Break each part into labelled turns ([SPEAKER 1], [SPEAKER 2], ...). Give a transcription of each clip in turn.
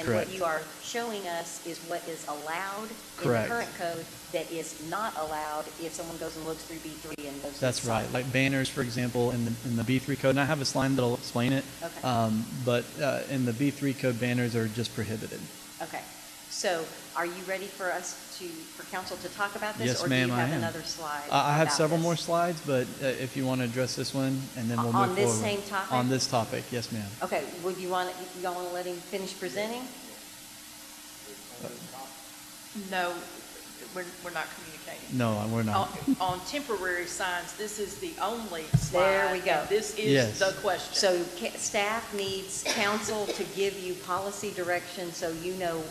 [SPEAKER 1] And what
[SPEAKER 2] Correct.
[SPEAKER 1] you are showing us is what is allowed in the
[SPEAKER 2] Correct.
[SPEAKER 1] current code that is not allowed if someone goes and looks through B3 and goes to the
[SPEAKER 2] That's right.
[SPEAKER 1] site.
[SPEAKER 2] Like banners, for example, in the, in the B3 code, and I have a slide that'll explain it.
[SPEAKER 1] Okay.
[SPEAKER 2] Um, but, uh, in the B3 code, banners are just prohibited.
[SPEAKER 1] Okay. So are you ready for us to, for council to talk about this?
[SPEAKER 2] Yes, ma'am, I
[SPEAKER 1] Or do you have
[SPEAKER 2] am.
[SPEAKER 1] another slide?
[SPEAKER 2] I, I have
[SPEAKER 1] about
[SPEAKER 2] several
[SPEAKER 1] this?
[SPEAKER 2] more slides, but, uh, if you want to address this one, and then we'll move
[SPEAKER 1] On
[SPEAKER 2] forward.
[SPEAKER 1] this same topic?
[SPEAKER 2] On this topic, yes, ma'am.
[SPEAKER 1] Okay, would you want, you all want to let him finish presenting?
[SPEAKER 3] No, we're, we're not communicating.
[SPEAKER 2] No, we're
[SPEAKER 1] Oh,
[SPEAKER 2] not.
[SPEAKER 3] On- On temporary signs, this is the only slide.
[SPEAKER 1] There we go.
[SPEAKER 3] and This
[SPEAKER 2] Yes.
[SPEAKER 3] is the question.
[SPEAKER 1] So ca- staff needs council to give you policy direction so you know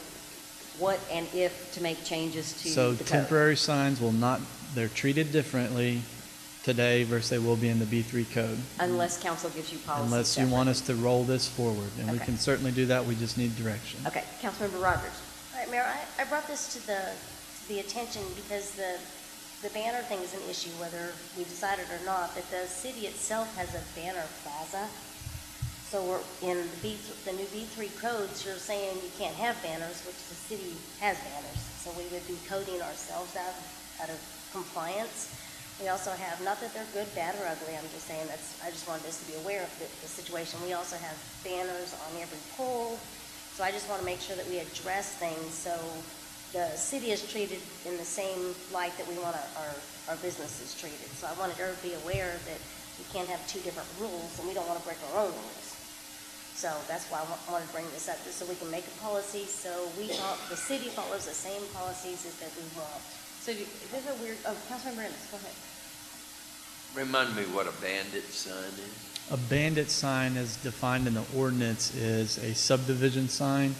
[SPEAKER 1] what and if to make changes to the
[SPEAKER 2] So
[SPEAKER 1] code.
[SPEAKER 2] temporary signs will not, they're treated differently today versus they will be in the B3 code.
[SPEAKER 1] Unless council gives you policy.
[SPEAKER 2] Unless you
[SPEAKER 1] separate.
[SPEAKER 2] want us to roll this forward, and we
[SPEAKER 1] Okay.
[SPEAKER 2] can certainly do that, we just need direction.
[SPEAKER 1] Okay, Councilmember Rogers.
[SPEAKER 4] All right, Mayor, I, I brought this to the, to the attention because the, the banner thing is an issue, whether we decided or not, that the city itself has a banner plaza. So we're, in the B, the new B three codes, you're saying you can't have banners, which the city has banners. So we would be coding ourselves out, out of compliance. We also have, not that they're good, bad, or ugly, I'm just saying that's, I just wanted us to be aware of the, the situation. We also have banners on every pole, so I just want to make sure that we address things so the city is treated in the same light that we want our, our, our businesses treated. So I wanted everybody to be aware that we can't have two different rules and we don't want to break our own rules. So that's why I wa- wanted to bring this up, just so we can make a policy, so we, fol- the city follows the same policies as that we want.
[SPEAKER 1] So you- there's a weird, oh, Councilmember Ennis, go ahead.
[SPEAKER 5] Remind me what a bandit sign is?
[SPEAKER 2] A bandit sign as defined in the ordinance is a subdivision sign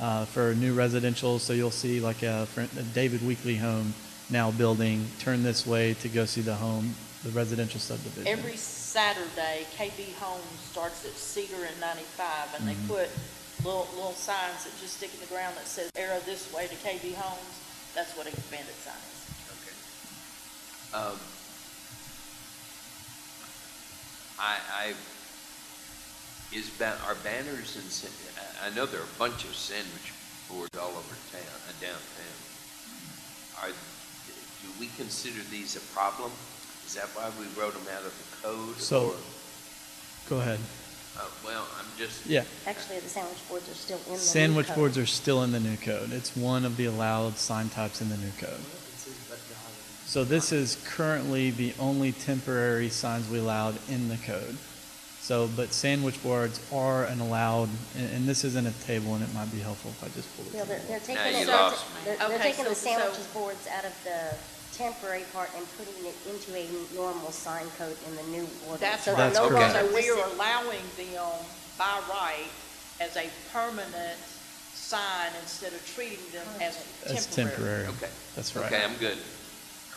[SPEAKER 2] uh, for new residential. So you'll see like a fr- a David Weekly home now building, turn this way to go see the home, the residential subdivision.
[SPEAKER 3] Every Saturday, KB Homes starts at Cedar and 95, and they
[SPEAKER 2] Mm-hmm.
[SPEAKER 3] put little, little signs that just stick in the ground that says arrow this way to KB Homes. That's what a bandit sign is.
[SPEAKER 5] Um, I, I, is ba, are banners and, sa- I, I know there are a bunch of sandwich boards all over town, uh, downtown. Are, do we consider these a problem? Is that why we wrote them out of the code?
[SPEAKER 2] So-
[SPEAKER 5] or-
[SPEAKER 2] Go ahead.
[SPEAKER 5] Uh, well, I'm just,
[SPEAKER 2] Yeah.
[SPEAKER 4] Actually, the sandwich boards are still in the new
[SPEAKER 2] Sandwich
[SPEAKER 4] code.
[SPEAKER 2] boards are still in the new code. It's one of the allowed sign types in the new code. So this is currently the only temporary signs we allowed in the code. So, but sandwich boards are an allowed, and, and this is in a table, and it might be helpful if I just pull it.
[SPEAKER 4] Yeah, they're, they're
[SPEAKER 2] table.
[SPEAKER 4] taking
[SPEAKER 5] you
[SPEAKER 4] it,
[SPEAKER 5] lost me.
[SPEAKER 4] they're, they're
[SPEAKER 3] Okay,
[SPEAKER 4] taking the
[SPEAKER 3] so- so-
[SPEAKER 4] sandwiches boards out of the temporary part and putting it into a normal sign code in the new ordinance.
[SPEAKER 3] That's
[SPEAKER 4] So
[SPEAKER 3] right.
[SPEAKER 4] they're
[SPEAKER 2] That's
[SPEAKER 4] no
[SPEAKER 2] correct.
[SPEAKER 4] longer
[SPEAKER 3] So we
[SPEAKER 4] listed-
[SPEAKER 3] are allowing them by right as a permanent sign instead of treating them as
[SPEAKER 2] That's temporary.
[SPEAKER 5] okay.
[SPEAKER 2] That's right.
[SPEAKER 5] Okay, I'm good.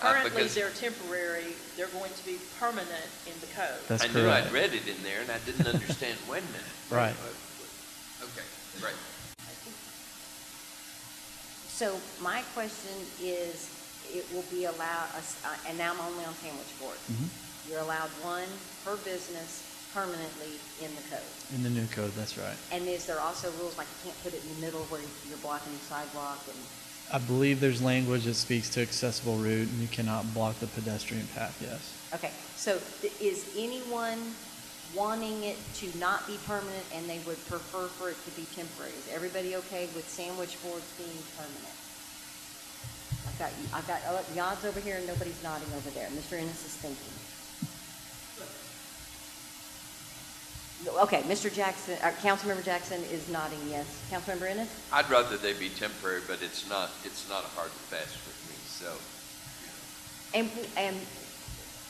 [SPEAKER 5] Uh,
[SPEAKER 3] Currently,
[SPEAKER 5] because-
[SPEAKER 3] they're temporary, they're going to be permanent in the code.
[SPEAKER 2] That's
[SPEAKER 5] I knew I'd
[SPEAKER 2] correct.
[SPEAKER 5] read it in there and I didn't understand when that.
[SPEAKER 2] Right.
[SPEAKER 5] Okay, great.
[SPEAKER 1] So my question is, it will be allowed, uh, and now I'm only on sandwich boards. You're allowed one per business permanently in the code.
[SPEAKER 2] In the new code, that's right.
[SPEAKER 1] And is there also rules like you can't put it in the middle where you're blocking the sidewalk and,
[SPEAKER 2] I believe there's language that speaks to accessible route, and you cannot block the pedestrian path, yes.
[SPEAKER 1] okay. So th- is anyone wanting it to not be permanent and they would prefer for it to be temporary? Is everybody okay with sandwich boards being permanent? I've got, I've got, oh, Yod's over here and nobody's nodding over there. Mr. Ennis is thinking. No, Okay, Mr. Jackson, uh, Councilmember Jackson is nodding yes. Councilmember Ennis?
[SPEAKER 5] I'd rather they be temporary, but it's not, it's not a hard and fast with me, so.
[SPEAKER 1] And, and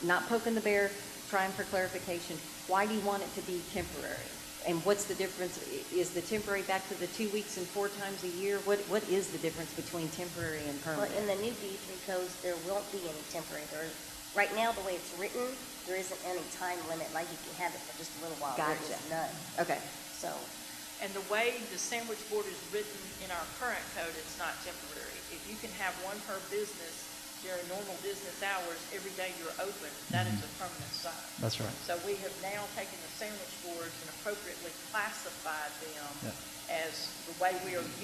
[SPEAKER 1] not poking the bear, trying for clarification, why do you want it to be temporary? And what's the difference, I- is the temporary back to the two weeks and four times a year? What, what is the difference between temporary and
[SPEAKER 4] Well,
[SPEAKER 1] permanent?
[SPEAKER 4] in the new B three codes, there won't be any temporary, there, right now, the way it's written, there isn't any time limit, like you can have it for just a little while, there is
[SPEAKER 1] Gotcha.
[SPEAKER 4] none,
[SPEAKER 1] Okay,
[SPEAKER 4] so.
[SPEAKER 3] And the way the sandwich board is written in our current code, it's not temporary. If you can have one per business during normal business hours, every day you're open, that is a permanent sign.
[SPEAKER 2] That's right.
[SPEAKER 3] So we have now taken the sandwich boards and appropriately classified them
[SPEAKER 2] Yeah.
[SPEAKER 3] as the way we are